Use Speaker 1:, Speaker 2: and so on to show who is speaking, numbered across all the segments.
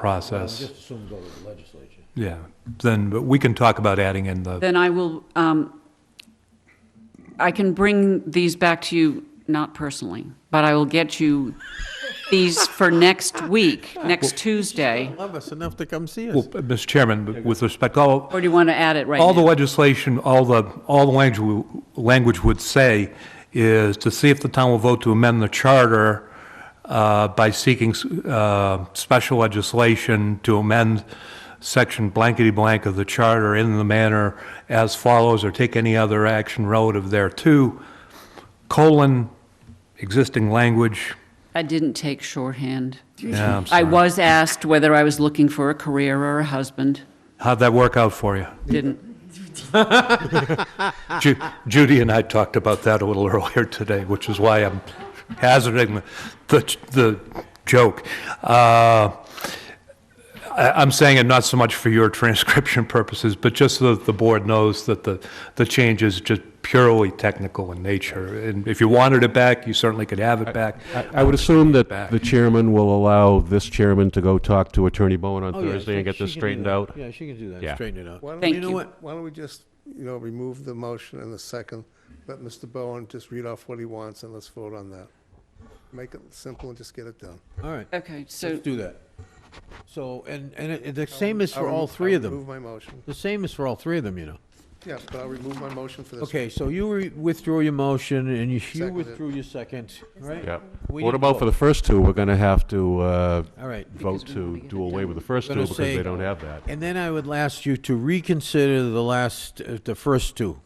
Speaker 1: I
Speaker 2: process,
Speaker 1: just assume go to the legislature.
Speaker 2: yeah, then, but we can talk about adding in the,
Speaker 3: Then I will, um, I can bring these back to you, not personally, but I will get you these for next week, next Tuesday.
Speaker 4: Love us enough to come see
Speaker 2: well,
Speaker 4: us.
Speaker 2: Mr. Chairman, but with respect, all,
Speaker 3: Or do you want to add it right now?
Speaker 2: all the legislation, all the, all the language, language would say is to see if the town will vote to amend the charter uh, by seeking uh, special legislation to amend section blankety blank of the charter in the manner as follows, or take any other action relative thereto, colon, existing language,
Speaker 3: I didn't take shorthand.
Speaker 2: yeah, I'm
Speaker 3: I
Speaker 2: sorry.
Speaker 3: was asked whether I was looking for a career or a husband.
Speaker 2: How'd that work out for you?
Speaker 3: Didn't.
Speaker 2: Ju- Judy and I talked about that a little earlier today, which is why I'm hazarding the, the joke. Uh, I, I'm saying it not so much for your transcription purposes, but just so that the board knows that the, the change is just purely technical in nature. And if you wanted it back, you certainly could have it back.
Speaker 5: I I would assume that the chairman will allow this chairman to go talk to Attorney Bowen on
Speaker 1: Oh, yeah,
Speaker 5: Thursday
Speaker 1: she-
Speaker 5: and get
Speaker 1: she
Speaker 5: this
Speaker 1: can do
Speaker 5: straightened
Speaker 1: that.
Speaker 5: out.
Speaker 1: Yeah, she can do that, and
Speaker 5: Yeah.
Speaker 1: straighten it out.
Speaker 6: Why don't,
Speaker 3: Thank
Speaker 6: you know
Speaker 3: you.
Speaker 6: what? Why don't we just, you know, remove the motion and the second, let Mr. Bowen just read off what he wants and let's vote on that. Make it simple and just get it done.
Speaker 1: All right,
Speaker 3: Okay, so
Speaker 1: let's do that. So, and, and it- the same is for all three of them.
Speaker 6: Move my motion.
Speaker 1: The same is for all three of them, you know.
Speaker 6: Yeah, but I'll remove my motion for this.
Speaker 1: Okay, so you re- withdrew your motion and you- you
Speaker 6: Seconded.
Speaker 1: withdrew your second, right?
Speaker 5: Yeah.
Speaker 1: We
Speaker 5: What
Speaker 1: need
Speaker 5: about for the
Speaker 1: both.
Speaker 5: first two? We're going to have to uh,
Speaker 1: All right.
Speaker 5: vote to do away with the first two
Speaker 1: Gonna
Speaker 5: because
Speaker 1: say-
Speaker 5: they don't have that.
Speaker 1: And then I would ask you to reconsider the last, uh, the first two.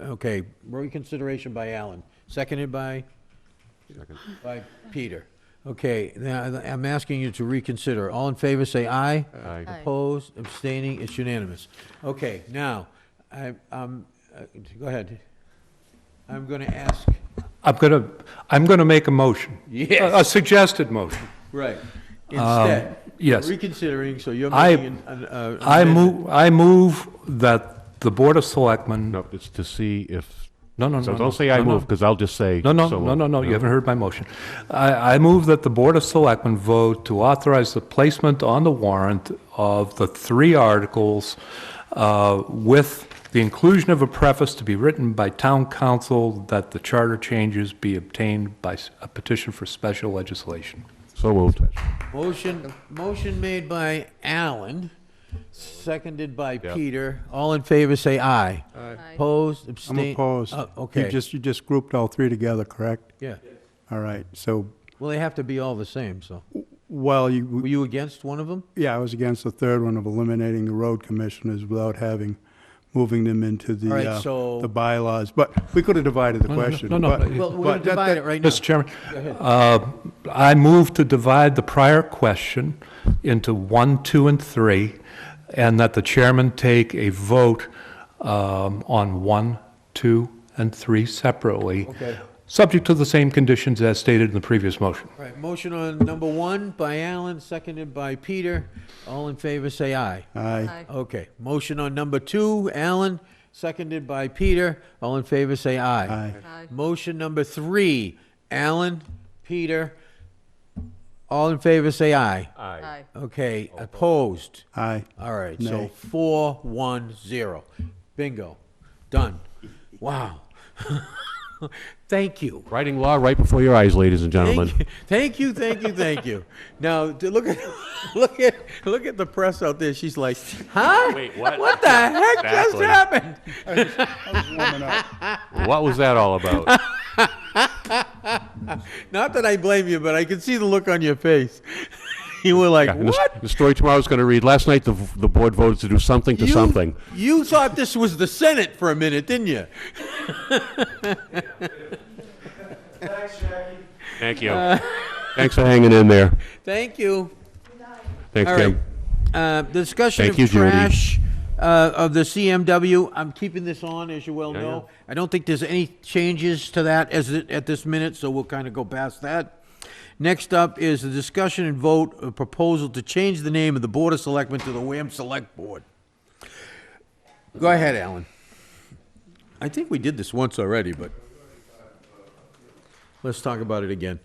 Speaker 1: Okay, reconsideration by Alan, seconded by? By Peter. Okay, now I- I'm asking you to reconsider. All in favor, say aye.
Speaker 5: Aye. Aye.
Speaker 1: Opposed, abstaining, it's unanimous. Okay, now, I, um, uh, go ahead. I'm gonna ask,
Speaker 2: I'm going to, I'm going to make a motion.
Speaker 1: Yes.
Speaker 2: A- A suggested motion.
Speaker 1: right, instead.
Speaker 2: yes.
Speaker 1: Reconsidering, so you're
Speaker 2: I-
Speaker 1: making an, uh.
Speaker 2: I move, I move that the Board of Selectmen
Speaker 5: No, it's to see if,
Speaker 2: No, no, no.
Speaker 5: so
Speaker 2: no.
Speaker 5: don't say I
Speaker 2: No, no.
Speaker 5: move because I'll just say.
Speaker 2: No, no,
Speaker 5: so
Speaker 2: no, no, no,
Speaker 5: moved.
Speaker 2: you haven't heard my motion. I, I move that the Board of Selectmen vote to authorize the placement on the warrant of the three articles uh, with the inclusion of a preface to be written by town council that the charter changes be obtained by s- a petition for special legislation.
Speaker 5: So moved.
Speaker 1: Motion, motion made by Alan, seconded by
Speaker 5: Yeah.
Speaker 1: Peter. All in favor, say aye. Aye. Opposed,
Speaker 7: I'm
Speaker 1: abstain?
Speaker 7: opposed.
Speaker 1: Oh,
Speaker 7: You
Speaker 1: Okay,
Speaker 7: just, you just grouped all three together, correct?
Speaker 1: yeah.
Speaker 7: All right, so,
Speaker 1: Well, they have to be all the same, so.
Speaker 7: well,
Speaker 1: Were
Speaker 7: you,
Speaker 1: you against one of them?
Speaker 7: yeah, I was against the third one of eliminating the road commissioners without having, moving them into the,
Speaker 1: All right,
Speaker 7: uh,
Speaker 1: so-
Speaker 7: the bylaws, but we could have divided the
Speaker 2: no,
Speaker 7: question.
Speaker 2: no, no,
Speaker 7: but-
Speaker 2: but-
Speaker 1: Well, we're gonna
Speaker 7: but that-
Speaker 1: divide
Speaker 7: that-
Speaker 1: it right now.
Speaker 2: Mr. Chairman, uh, I move to divide the prior question into one, two, and three, and that the chairman take a vote um, on one, two, and three separately.
Speaker 1: Okay.
Speaker 2: Subject to the same conditions as stated in the previous motion.
Speaker 1: All right, motion on number one by Alan, seconded by Peter. All in favor, say aye.
Speaker 7: Aye,
Speaker 1: Okay, motion on number two, Alan, seconded by Peter. All in favor, say aye.
Speaker 7: Aye.
Speaker 1: Motion number three, Alan, Peter. All in favor, say aye.
Speaker 5: Aye.
Speaker 1: Okay, opposed?
Speaker 7: aye.
Speaker 1: All right, so
Speaker 7: Nay.
Speaker 1: four, one, zero. Bingo, done. Wow. Thank you.
Speaker 5: Writing law right before your eyes, ladies and gentlemen.
Speaker 1: Thank you, thank you, thank you, thank you. Now, d- look at, look at, look at the press out there. She's like, huh?
Speaker 5: Wait, what?
Speaker 1: What the heck just
Speaker 5: Exactly.
Speaker 1: happened?
Speaker 5: What was that all about?
Speaker 1: Not that I blame you, but I could see the look on your face. you were like,
Speaker 5: Yeah, and this-
Speaker 1: what?
Speaker 5: The story tomorrow's going to read, last night the, v- the board voted to do something to
Speaker 1: You-
Speaker 5: something.
Speaker 1: You thought this was the Senate for a minute, didn't you?
Speaker 5: Thank you.
Speaker 1: Uh,
Speaker 5: Thanks for hanging in there.
Speaker 1: Thank you.
Speaker 5: Thanks,
Speaker 1: All
Speaker 5: Kim.
Speaker 1: right. Uh, the discussion
Speaker 5: Thank
Speaker 1: of
Speaker 5: you, Judy.
Speaker 1: trash uh, of the CMW. I'm keeping this on, as you well
Speaker 5: Yeah,
Speaker 1: know. I don't think there's any changes to that as it, at this minute, so we'll kind of go past that. Next up is the discussion and vote a proposal to change the name of the Board of Selectmen to the Wareham Select Board. Go ahead, Alan. I think we did this once already, but let's talk about it again.